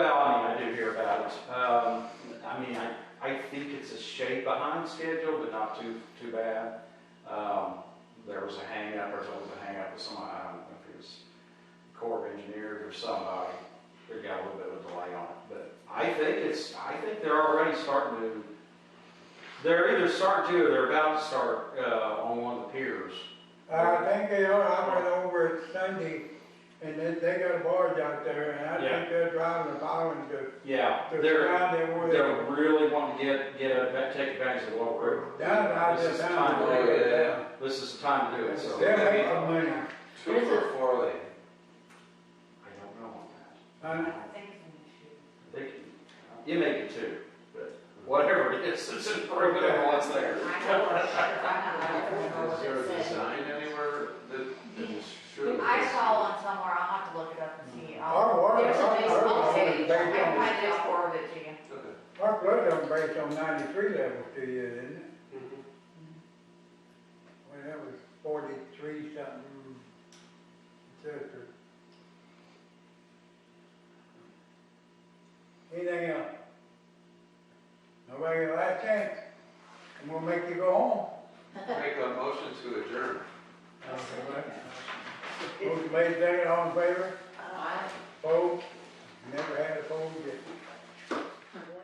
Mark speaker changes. Speaker 1: Um, behind schedule, but not too, too bad. Um, there was a hangup, or there was a hangup with somebody, I don't know if it was Corps of Engineers or somebody, that got a little bit of a delay on it, but I think it's, I think they're already starting to, they're either starting to, or they're about to start, uh, on one of the piers.
Speaker 2: I think they are, I went over it Sunday, and they, they got a barge out there, and I
Speaker 1: Yeah.
Speaker 2: think they're driving the bottom to,
Speaker 1: Yeah,
Speaker 2: to
Speaker 1: they're,
Speaker 2: find their way.
Speaker 1: they're really wanting to get, get, a- take advantage of the low river.
Speaker 2: Down, I
Speaker 1: This is
Speaker 2: just
Speaker 1: the
Speaker 2: down.
Speaker 1: time,
Speaker 3: to do it.
Speaker 2: They're
Speaker 1: this is the time to do it, so. I
Speaker 3: Yeah.
Speaker 2: making money,
Speaker 3: Two for four lane.
Speaker 1: don't know on that.
Speaker 2: huh?
Speaker 1: They can, you make it two, but whatever it is, it's improvement on what's there.
Speaker 3: Is there a design anywhere that, that is sure?
Speaker 4: I saw one somewhere, I'll have to look it up and see. I'll-
Speaker 2: Our water,
Speaker 4: There's a
Speaker 2: our,
Speaker 4: Facebook
Speaker 2: our,
Speaker 4: page, I can
Speaker 2: based
Speaker 4: find it, I'll forward it to you.
Speaker 3: Okay.
Speaker 2: on, our flood done based on ninety-three level to you, isn't it? Well, that was forty-three something, et cetera. Anything else? Nobody got a last chance? I'm gonna make you go home.
Speaker 3: Make a motion to adjourn.
Speaker 2: Motion made, second, all in favor?
Speaker 4: Uh, I-
Speaker 2: Opposed? Never had a